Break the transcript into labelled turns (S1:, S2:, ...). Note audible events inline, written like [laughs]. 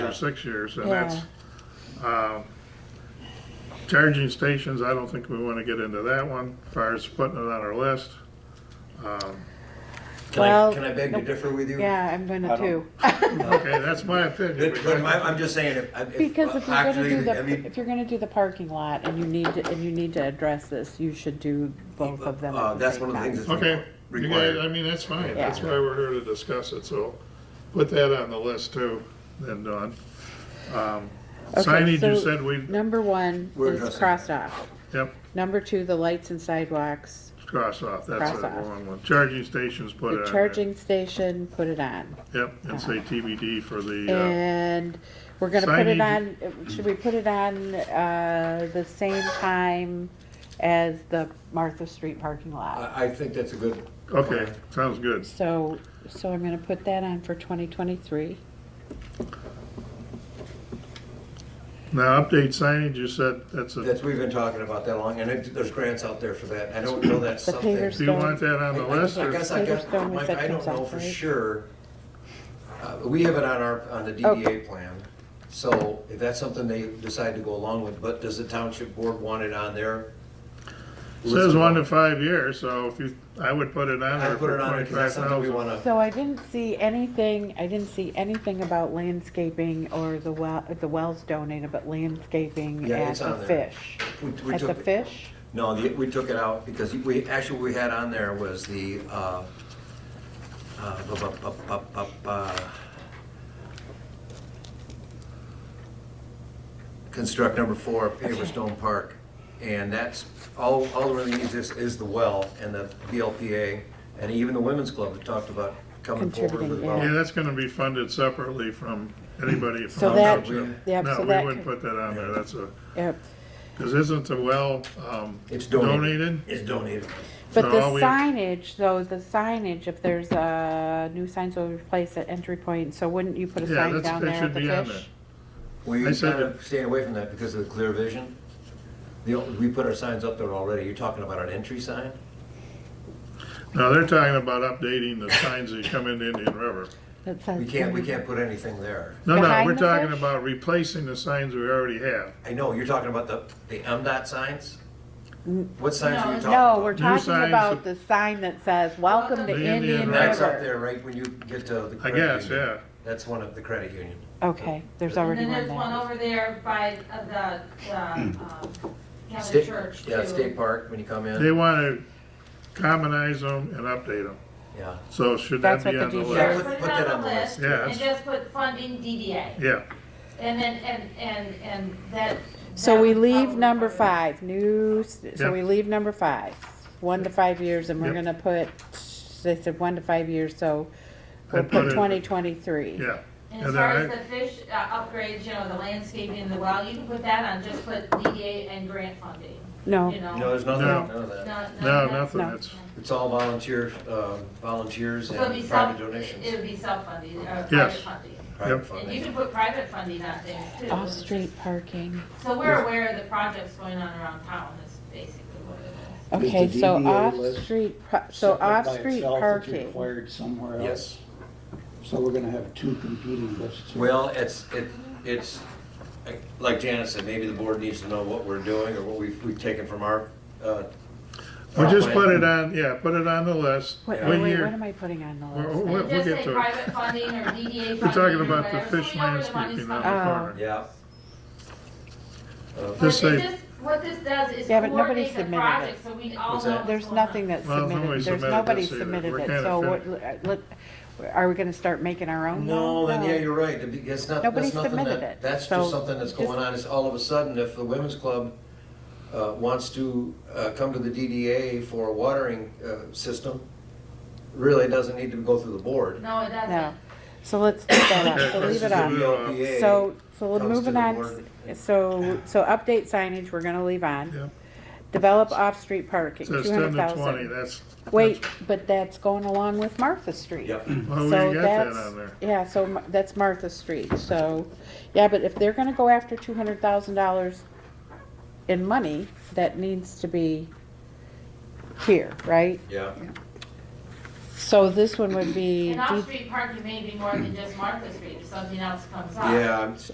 S1: or six years, and
S2: Yeah.
S1: that's, um, charging stations, I don't think we wanna get into that one, as far as putting it on our list. Um,
S3: Can I,
S2: Well,
S3: can I beg to differ with you?
S2: Yeah, I'm gonna
S4: I don't-
S2: too.
S1: Okay, that's my opinion.
S3: But, but I- I'm just saying, if- [laughs]
S2: [laughs]
S3: if.
S2: Because if you're gonna
S3: actually,
S2: do
S3: I
S2: the,
S3: mean,
S2: if you're gonna do the parking lot and you need to, and you need to address this, you should do both of them
S3: Uh,
S2: at the
S3: that's one
S2: same
S3: of the things
S2: time.
S3: that's.
S1: Okay, you guys,
S3: Required.
S1: I mean, that's fine, that's
S2: Yeah.
S1: why we're here to discuss it, so put that on the list too, then Dawn. Um,
S2: Okay,
S1: Signage, you
S2: so-
S1: said we,
S2: Number one
S3: We're
S2: is
S3: addressing
S2: crossed off.
S1: yep,
S2: Number two, the lights and sidewalks.
S1: cross off, that's
S2: Cross
S1: the
S2: off.
S1: one, one. charging stations, put it
S2: The
S1: on there.
S2: charging station, put it on.
S1: Yep, and say TBD for the, uh,
S2: And we're gonna put it on,
S1: Signage-
S2: should we put it on, uh, the same time as the Martha Street parking lot?
S3: I, I think that's a good.
S1: uh, okay, sounds good.
S2: So, so I'm gonna put that on for twenty twenty-three.
S1: Now, update signage, you said, that's a,
S3: That's, we've been talking about that long, and it- there's grants out there for that. I don't know that's
S2: The
S3: something.
S2: pavers-
S1: do you want that on the
S3: I- I-
S1: list,
S3: I
S1: or,
S3: guess I
S2: Peter
S3: guess,
S2: Stone was
S3: Mike,
S2: at
S3: I don't know
S2: Consult,
S3: for
S2: right?
S3: sure. Uh, We have it on our, on the
S2: Okay.
S3: DDA plan, so if that's something they decide to go along with, but does the township board want it on there?
S1: says one to five years, so if you, I would put it on
S3: I
S1: there
S3: put
S1: for
S3: it on because
S1: twenty-five
S3: that's something we
S1: thousand.
S3: wanna,
S2: So I didn't see anything, I didn't see anything about landscaping or the well, the wells donated, but landscaping
S3: Yeah,
S2: at
S3: it's
S2: the
S3: on there.
S2: fish.
S3: We- we
S2: At the
S3: took it.
S2: fish?
S3: no, the- we took it out because we, actually, what we had on there was the, uh, uh, bu- bu- bu- bu- bu- uh, bu- construct number four, paver stone park. And that's, all, all really needs is, is the well and the BLPA, and even the women's club that talked about coming forward with
S2: Contributing,
S3: well.
S1: Yeah, that's gonna be funded separately from anybody
S2: So
S1: from the
S2: that-
S1: township.
S2: yep,
S1: No,
S2: so
S1: we
S2: that
S1: wouldn't
S2: could-
S1: put that on there, that's a,
S2: Yep.
S1: cause isn't the well, um,
S3: It's donated.
S1: donated?
S3: It's donated.
S2: But
S1: So
S2: the
S1: all we-
S2: signage, though, the signage, if there's a new signs will replace at entry point, so wouldn't you put a
S1: Yeah,
S2: sign
S1: that's-
S2: down
S1: that
S2: there
S1: should
S2: at the
S1: be on
S2: fish?
S3: We
S1: I
S3: kind
S1: said
S3: of stayed away from that because of the clear vision. The, we put our signs up there already. You're talking about an entry sign?
S1: No, they're talking about updating the signs that come into Indian River.
S2: That says
S3: We can't, we
S2: donated.
S3: can't put anything there.
S1: No, no,
S2: Behind
S1: we're
S2: the
S1: talking
S2: fish?
S1: about replacing the signs we already have.
S3: I know, you're talking about the, the MDOT signs? What signs are you talking about?
S2: No, we're
S1: New
S2: talking
S1: signs
S2: about
S1: that-
S2: the sign that says, welcome to
S1: The Indian
S2: Indian
S1: River."
S3: That's up
S2: River.
S3: there, right, when you get to the
S1: I
S3: credit
S1: guess,
S3: union.
S1: yeah.
S3: That's one of the credit union.
S2: Okay, there's
S5: And
S2: already
S5: then
S2: one
S5: there's one
S2: there.
S5: over there by uh, the,
S3: [clears throat]
S5: the, um, Catholic
S3: State-
S5: Church
S3: Yeah,
S5: too.
S3: State Park, when you come
S1: They
S3: in,
S1: wanna commonize them and update them,
S3: yeah.
S1: so should that
S2: That's what
S1: be
S2: the
S1: on the
S2: DJ
S1: list?
S3: Yeah,
S5: Put
S3: put-
S5: it
S3: put that on the list.
S1: Yeah,
S5: and
S1: that's-
S5: just put funding DDA.
S1: Yeah,
S5: And then, and, and, and that.
S2: So
S5: that
S2: we
S5: would
S2: leave
S5: probably
S2: number
S5: cover it.
S2: five, new, s- so
S1: Yep.
S2: we leave number five, one to five years, and we're
S1: Yep.
S2: gonna put, they said one to five years, so we'll
S1: I'd put
S2: put
S1: it-
S2: twenty twenty-three.
S1: yeah.
S5: And as
S1: then
S5: far as
S1: I-
S5: the fish uh, upgrades, you know, the landscaping and the well, you can put that on, just put DDA and grant funding,
S2: No,
S5: you know?
S3: No, there's nothing,
S1: No.
S3: none of that.
S5: Not-
S1: No,
S5: not-
S1: nothing,
S2: Uh, No.
S1: it's,
S3: It's all volunteer, um, volunteers
S5: So it'd be
S3: and
S5: self,
S3: private
S5: it
S3: donations.
S5: would be self-funded, or private
S1: Yes.
S5: funding.
S3: private
S5: And you
S3: funding.
S5: can put private funding on things too.
S2: off-street parking.
S5: So we're aware of the projects going on around town, is basically what it is.
S4: Is
S2: Okay,
S4: the
S2: so
S4: DDA list
S2: off-street, par- so
S4: separate by
S2: off-street
S4: itself that's
S2: parking.
S4: Required somewhere else.
S3: Yes,
S4: So we're gonna have two competing lists.
S3: well, it's, it, it's, like Janet said, maybe the board needs to know what we're doing or what we've, we've taken from our, uh.
S1: we
S3: our
S1: just
S3: plan.
S1: put it on, yeah, put it on the list.
S2: Wait,
S1: What
S2: wait, wait, what
S1: year-
S2: am I putting on the
S1: We'll we'll-
S2: list?
S1: we'll
S5: Just
S1: get
S5: say
S1: to it.
S5: private funding or DDA funding.
S1: We're talking
S5: or
S1: about the
S5: whatever, so we
S1: fish
S5: know where the money's
S1: landscaping on the
S5: coming
S2: Oh.
S1: corner.
S3: Yeah. Uh,
S5: from.
S1: Just
S5: But it
S1: say-
S5: just- What this does is
S2: Yeah, but nobody
S5: coordinate the
S2: submitted it.
S5: project, so we all know
S3: What's that?
S5: what's
S2: There's
S5: going on.
S2: nothing that's
S1: Well, nobody
S2: submitted, there's
S1: submitted
S2: nobody
S1: this either.
S2: submitted
S1: We're
S2: it,
S1: kinda
S2: so
S1: finished.
S2: what, let, are we gonna start making our own?
S3: No, then
S2: now?
S3: yeah, you're right. It'd be- It's not,
S2: Nobody
S3: that's nothing
S2: submitted
S3: that,
S2: it,
S3: that's
S2: so
S3: just something that's
S2: just-
S3: going on. It's all of a sudden, if the women's club uh, wants to uh, come to the DDA for a watering uh, system, really doesn't need to go through the board.
S5: No, it
S2: No,
S5: doesn't.
S2: so let's leave that
S1: Okay,
S2: up, so
S1: let's
S2: leave
S1: just
S2: it
S1: leave
S2: on.
S1: it
S2: So, so we're
S3: comes to
S2: moving
S3: the
S2: on,
S3: board.
S2: so, so update signage, we're gonna leave on.
S1: Yep.
S2: Develop off-street parking,
S1: It
S2: two
S1: Says ten
S2: hundred
S1: to twenty,
S2: thousand.
S1: that's.
S2: Wait, but that's going along with Martha Street.
S3: Yep.
S1: Well, we
S2: So
S1: got that
S2: that's,
S1: on there.
S2: yeah, so Ma- that's Martha Street, so, yeah, but if they're gonna go after two hundred thousand dollars in money, that needs to be here, right?
S3: Yeah.
S2: So this one would be
S5: And
S2: de-
S5: off-street parking may be more than just Martha Street, if something else comes up.
S3: Yeah, I'm-